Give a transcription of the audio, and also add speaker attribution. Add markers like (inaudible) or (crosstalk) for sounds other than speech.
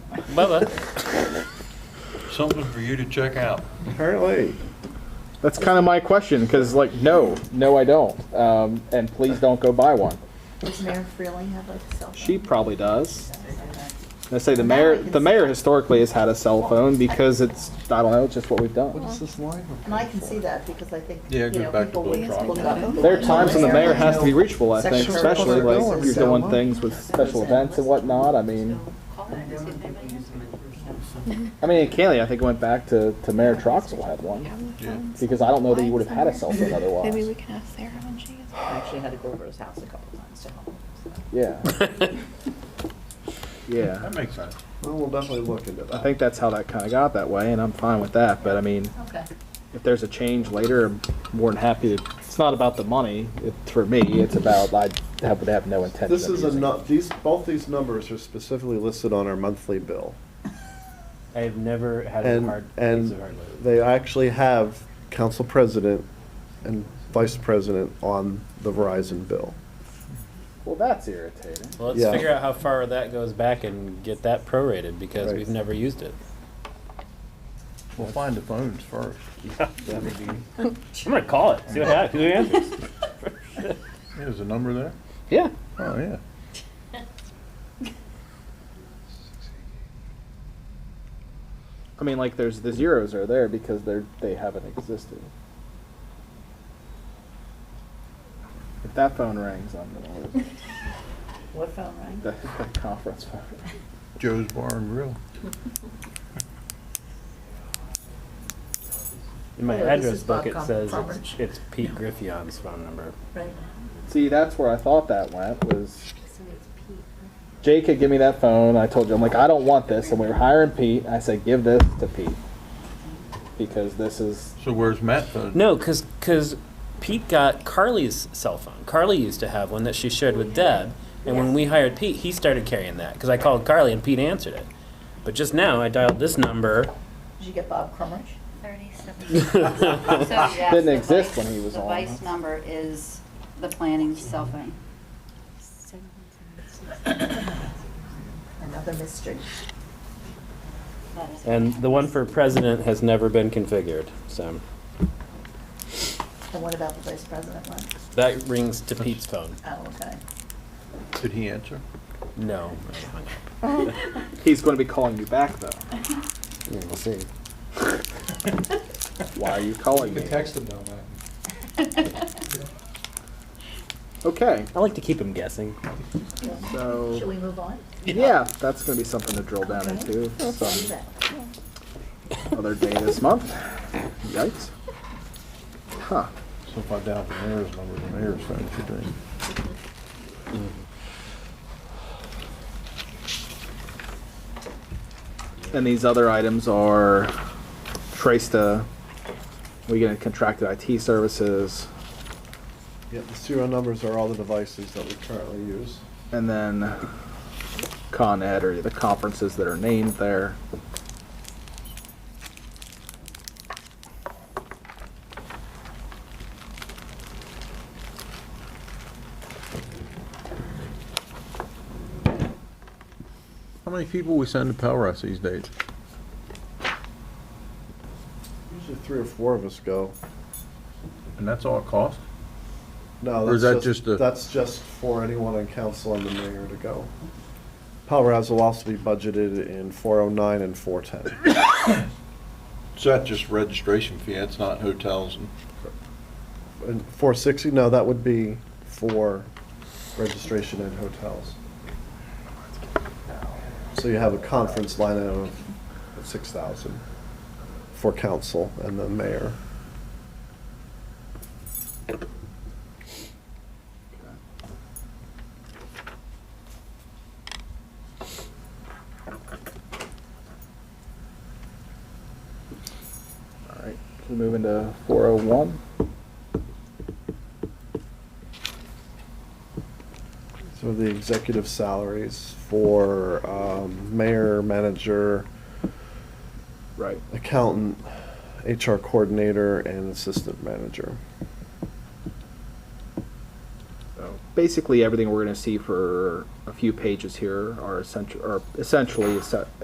Speaker 1: Bubba, something for you to check out.
Speaker 2: Apparently.
Speaker 3: That's kind of my question because, like, no, no, I don't. Um, and please don't go buy one.
Speaker 4: Does Mayor Freeling have like a cell phone?
Speaker 3: She probably does. I say the mayor. The mayor historically has had a cell phone because it's I don't know, it's just what we've done.
Speaker 2: this line?
Speaker 4: And I can see that because I think,
Speaker 1: Yeah,
Speaker 4: you
Speaker 1: go
Speaker 4: know,
Speaker 1: back to
Speaker 4: people
Speaker 1: Blue
Speaker 4: will
Speaker 1: Cross.
Speaker 4: look it up.
Speaker 3: There are times when the mayor has to be reachable. I think,
Speaker 2: Sexual
Speaker 3: especially like
Speaker 2: assault.
Speaker 3: you're doing things with special events and whatnot. I mean,
Speaker 5: (laughs)
Speaker 3: I mean, Kaylee, I think went back to to Mayor Troxel had one
Speaker 1: Yeah.
Speaker 3: because I don't know that you would have had a cell phone
Speaker 5: (laughs) Maybe we
Speaker 3: otherwise.
Speaker 5: can ask Sarah when she gets.
Speaker 6: I actually had to go over to his house a couple times to help him. so.
Speaker 3: Yeah. Yeah.
Speaker 1: That makes sense.
Speaker 2: Well, we'll definitely look into that.
Speaker 3: I think that's how that kind of got that way, and I'm fine with that. But I mean,
Speaker 6: Okay.
Speaker 3: if there's a change later, I'm more than happy to. It's not about the money it, for me. It's about I have, would have no intention.
Speaker 2: This
Speaker 3: of
Speaker 2: is a,
Speaker 3: using it.
Speaker 2: nu- these, both these numbers are specifically listed on our monthly bill.
Speaker 7: I've never had a
Speaker 2: And,
Speaker 7: hard, piece
Speaker 2: and
Speaker 7: of hard load.
Speaker 2: they actually have council president and vice president on the Verizon bill.
Speaker 3: Well, that's irritating.
Speaker 7: Well, let's
Speaker 2: yeah.
Speaker 7: figure out how far that goes back and get that prorated because
Speaker 2: Right.
Speaker 7: we've never used it.
Speaker 8: We'll find the phones first.
Speaker 7: I'm gonna call it. See what happens. Who answers?
Speaker 8: Yeah, There's a number there?
Speaker 3: Yeah.
Speaker 8: Oh, yeah.
Speaker 3: I mean, like there's the zeros are there because they're they haven't existed. If that phone rings, I'm gonna lose
Speaker 6: (laughs) What phone rang?
Speaker 3: the, the conference phone.
Speaker 8: Joe's Bar and Grill.
Speaker 7: In my
Speaker 6: Hello, this
Speaker 7: address
Speaker 6: is
Speaker 7: book, it
Speaker 6: Bob
Speaker 7: says it's,
Speaker 6: Roberts.
Speaker 7: it's Pete Griffion's phone number.
Speaker 6: Right.
Speaker 3: See, that's where I thought that went was. Jake had given me that phone. I told you, I'm like, I don't want this. And we were hiring Pete. I said, give this to Pete because this is
Speaker 8: So where's Matt's phone?
Speaker 7: No, because Pete got Carly's cell phone. Carly used to have one that she shared with Deb, and when we hired Pete, he started carrying that because I called Carly and Pete answered it. But just now, I dialed this (laughs) number.
Speaker 6: Did you get Bob Crumrich?
Speaker 3: (laughs) Didn't exist when he was on.
Speaker 9: The vice number is the planning cell phone.
Speaker 6: Another mystery.
Speaker 9: That is-
Speaker 7: And the one for president has never been configured, so
Speaker 6: And what about the vice president one?
Speaker 7: that rings to Pete's phone.
Speaker 6: Oh,
Speaker 9: (laughs)
Speaker 6: okay.
Speaker 8: Did he answer?
Speaker 7: No.
Speaker 3: he's going to be calling you back (laughs) though.
Speaker 7: We'll see.
Speaker 3: (laughs) Why are you calling me?
Speaker 10: Text him though, man.
Speaker 3: Okay,
Speaker 7: I like to keep him guessing.
Speaker 3: so
Speaker 6: Should we move on?
Speaker 3: yeah, that's going to be something to drill down into some other day this month. Yikes. Huh.
Speaker 8: So if I dial the mayor's number, the mayor's phone should ring.
Speaker 3: Mm-hmm. And these other items are Trista, we get contracted IT services,
Speaker 2: Yeah, the serial numbers are all the devices that we currently use.
Speaker 3: and then Con Ed or the conferences that are named there.
Speaker 8: How many people we send to Pell Rouse these days?
Speaker 2: Usually three or four of us go.
Speaker 8: And that's all it costs?
Speaker 2: No,
Speaker 8: Or is
Speaker 2: that's
Speaker 8: that just a-
Speaker 2: That's just for anyone on council and the mayor to go. Power House will also be budgeted in four oh nine and four ten.
Speaker 8: So that's just registration fee, that's not hotels and,
Speaker 2: And four sixty, no, that would be for registration and hotels. So you have a conference line item of six thousand for council and the mayor.
Speaker 3: All right, can we move into 401?
Speaker 2: So the executive salaries for um, mayor, manager,
Speaker 3: Right.
Speaker 2: accountant, HR coordinator, and assistant manager.
Speaker 3: So Basically, everything we're going to see for a few pages here are essential, are essentially essen-